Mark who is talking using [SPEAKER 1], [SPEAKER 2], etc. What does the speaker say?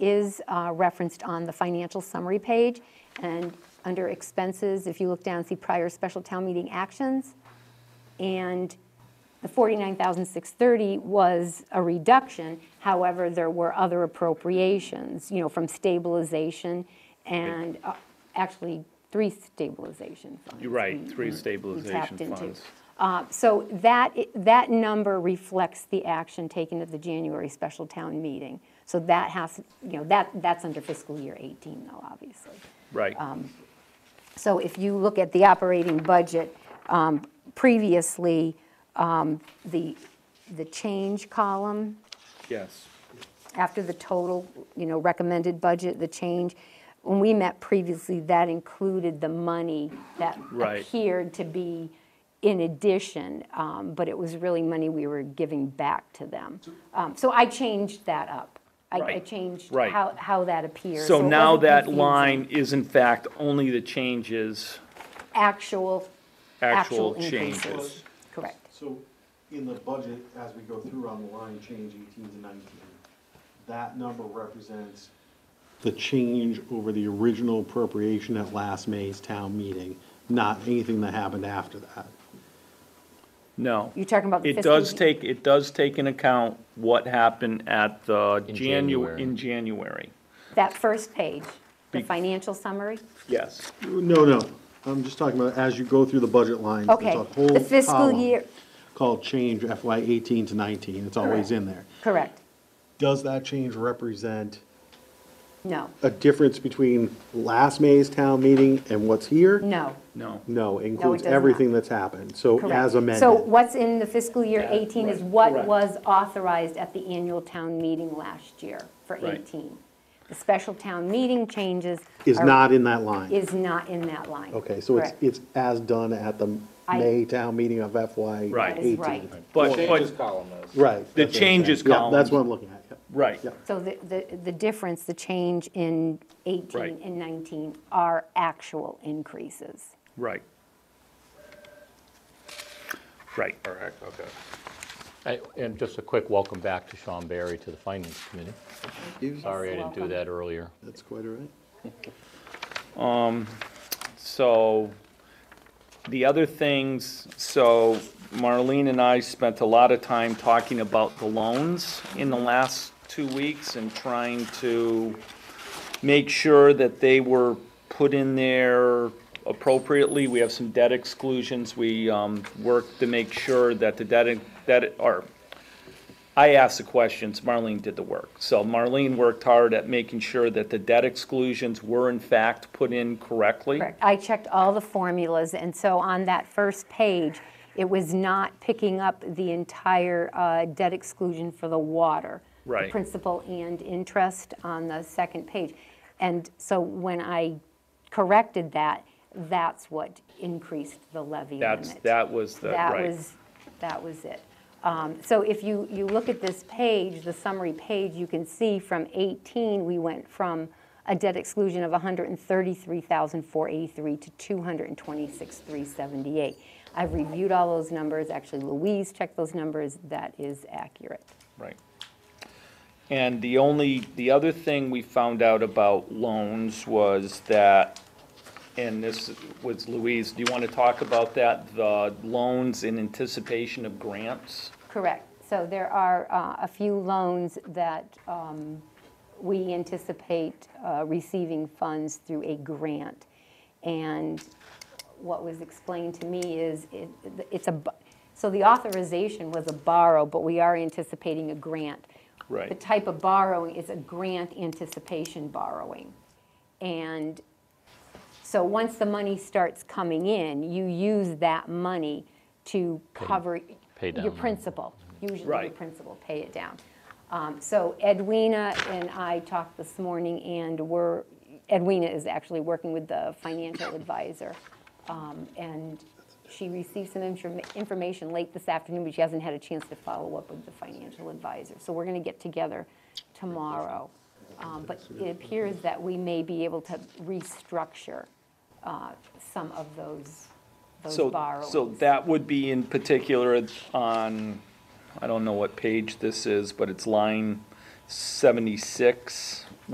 [SPEAKER 1] is uh, referenced on the financial summary page. And under expenses, if you look down, see prior special town meeting actions. And the 49,630 was a reduction. However, there were other appropriations, you know, from stabilization and uh, actually three stabilization funds.
[SPEAKER 2] You're right, three
[SPEAKER 1] we
[SPEAKER 2] stabilization
[SPEAKER 1] tapped into.
[SPEAKER 2] funds.
[SPEAKER 1] Uh, So that, i- that number reflects the action taken at the January special town meeting. So that has, you know, that, that's under fiscal year 18 though, obviously.
[SPEAKER 2] Right,
[SPEAKER 1] So if you look at the operating budget, um, previously, um, the, the change column,
[SPEAKER 2] yes.
[SPEAKER 1] after the total, you know, recommended budget, the change, when we met previously, that included the money that
[SPEAKER 2] Right.
[SPEAKER 1] appeared to be in addition, um, but it was really money we were giving back to them. Um, So I changed that up. I- I
[SPEAKER 2] Right.
[SPEAKER 1] changed
[SPEAKER 2] Right.
[SPEAKER 1] how, how that appears.
[SPEAKER 2] So
[SPEAKER 1] it
[SPEAKER 2] now
[SPEAKER 1] wasn't
[SPEAKER 2] that
[SPEAKER 1] confusing.
[SPEAKER 2] line is in fact only the changes,
[SPEAKER 1] Actual,
[SPEAKER 2] actual
[SPEAKER 1] actual
[SPEAKER 2] changes.
[SPEAKER 1] increases. Correct.
[SPEAKER 3] So in the budget, as we go through on the line, change eighteen to nineteen, that number represents the change over the original appropriation at last May's town meeting, not anything that happened after that.
[SPEAKER 2] No.
[SPEAKER 1] You're talking about the
[SPEAKER 2] It
[SPEAKER 1] fiscal.
[SPEAKER 2] does take, it does take into account what happened at the
[SPEAKER 4] In
[SPEAKER 2] Janu,
[SPEAKER 4] January.
[SPEAKER 2] in January.
[SPEAKER 1] That first page, the
[SPEAKER 2] Be-
[SPEAKER 1] financial summary.
[SPEAKER 2] Yes.
[SPEAKER 3] No, no, I'm just talking about as you go through the budget lines. there's
[SPEAKER 1] Okay,
[SPEAKER 3] a whole
[SPEAKER 1] the fiscal
[SPEAKER 3] column
[SPEAKER 1] year-
[SPEAKER 3] Called change FY eighteen to nineteen, it's
[SPEAKER 1] Correct.
[SPEAKER 3] always in there.
[SPEAKER 1] Correct.
[SPEAKER 3] Does that change represent
[SPEAKER 1] No,
[SPEAKER 3] a difference between last May's town meeting and what's here?
[SPEAKER 1] no.
[SPEAKER 2] No.
[SPEAKER 3] No, includes
[SPEAKER 1] does not.
[SPEAKER 3] everything that's happened, so
[SPEAKER 1] Correct.
[SPEAKER 3] as
[SPEAKER 1] So
[SPEAKER 3] amended.
[SPEAKER 1] what's in the fiscal year 18 is
[SPEAKER 2] right,
[SPEAKER 1] what
[SPEAKER 2] correct.
[SPEAKER 1] was authorized at the annual town meeting last year for
[SPEAKER 2] Right.
[SPEAKER 1] 18. The special town meeting changes.
[SPEAKER 3] Is
[SPEAKER 1] are-
[SPEAKER 3] not in that line.
[SPEAKER 1] Is not in that line.
[SPEAKER 3] Okay, so it's,
[SPEAKER 1] Correct.
[SPEAKER 3] it's as done at the
[SPEAKER 1] I-
[SPEAKER 3] May town meeting of FY
[SPEAKER 2] Right.
[SPEAKER 1] That is
[SPEAKER 3] eighteen.
[SPEAKER 1] right.
[SPEAKER 2] But,
[SPEAKER 4] Changes
[SPEAKER 2] but,
[SPEAKER 4] column
[SPEAKER 3] Right.
[SPEAKER 4] is.
[SPEAKER 3] that's what I'm saying.
[SPEAKER 2] changes
[SPEAKER 3] Yeah, That's
[SPEAKER 2] column.
[SPEAKER 3] what I'm looking at, yeah.
[SPEAKER 2] right,
[SPEAKER 3] Yeah.
[SPEAKER 1] So the, the, the difference, the change in 18
[SPEAKER 2] Right.
[SPEAKER 1] and 19 are actual increases.
[SPEAKER 2] right. Right.
[SPEAKER 4] Correct, okay. I- And just a quick welcome back to Sean Barry to the Finance Committee. Sorry I didn't do
[SPEAKER 1] Welcome.
[SPEAKER 4] that earlier.
[SPEAKER 3] That's quite all right.
[SPEAKER 2] So, the other things, so Marlene and I spent a lot of time talking about the loans in the last two weeks and trying to make sure that they were put in there appropriately. We have some debt exclusions. We um, worked to make sure that the debt, that, or I asked the questions, Marlene did the work. So Marlene worked hard at making sure that the debt exclusions were in fact put in correctly.
[SPEAKER 1] Correct. I checked all the formulas, and so on that first page, it was not picking up the entire uh, debt exclusion for the water. the
[SPEAKER 2] Right.
[SPEAKER 1] Principal and interest on the second page. And so when I corrected that, that's what increased the levy limit.
[SPEAKER 2] That's, that was the,
[SPEAKER 1] That
[SPEAKER 2] right.
[SPEAKER 1] was, that was it. Um, So if you, you look at this page, the summary page, you can see from 18, we went from a debt exclusion of 133,483 to 226,378. I've reviewed all those numbers, actually Louise checked those numbers, that is accurate.
[SPEAKER 2] Right. And the only, the other thing we found out about loans was that, and this was Louise, do you want to talk about that? The loans in anticipation of grants?
[SPEAKER 1] Correct. So there are uh, a few loans that um, we anticipate uh, receiving funds through a grant. And what was explained to me is it- it's a, bu- so the authorization was a borrow, but we are anticipating a grant.
[SPEAKER 2] Right.
[SPEAKER 1] The type of borrowing is a grant anticipation borrowing. And so once the money starts coming in, you use that money to cover
[SPEAKER 4] pay down
[SPEAKER 1] your
[SPEAKER 4] the-
[SPEAKER 1] principal. Usually your
[SPEAKER 2] Right.
[SPEAKER 1] principal, pay it down. Um, So Edwina and I talked this morning and we're, Edwina is actually working with the financial advisor. um, And she received some informa- information late this afternoon, but she hasn't had a chance to follow up with the financial advisor. So we're going to get together tomorrow. Um, But it appears that we may be able to restructure uh, some of those,
[SPEAKER 2] So-
[SPEAKER 1] those borrowings.
[SPEAKER 2] So that would be in particular on, I don't know what page this is, but it's line 76.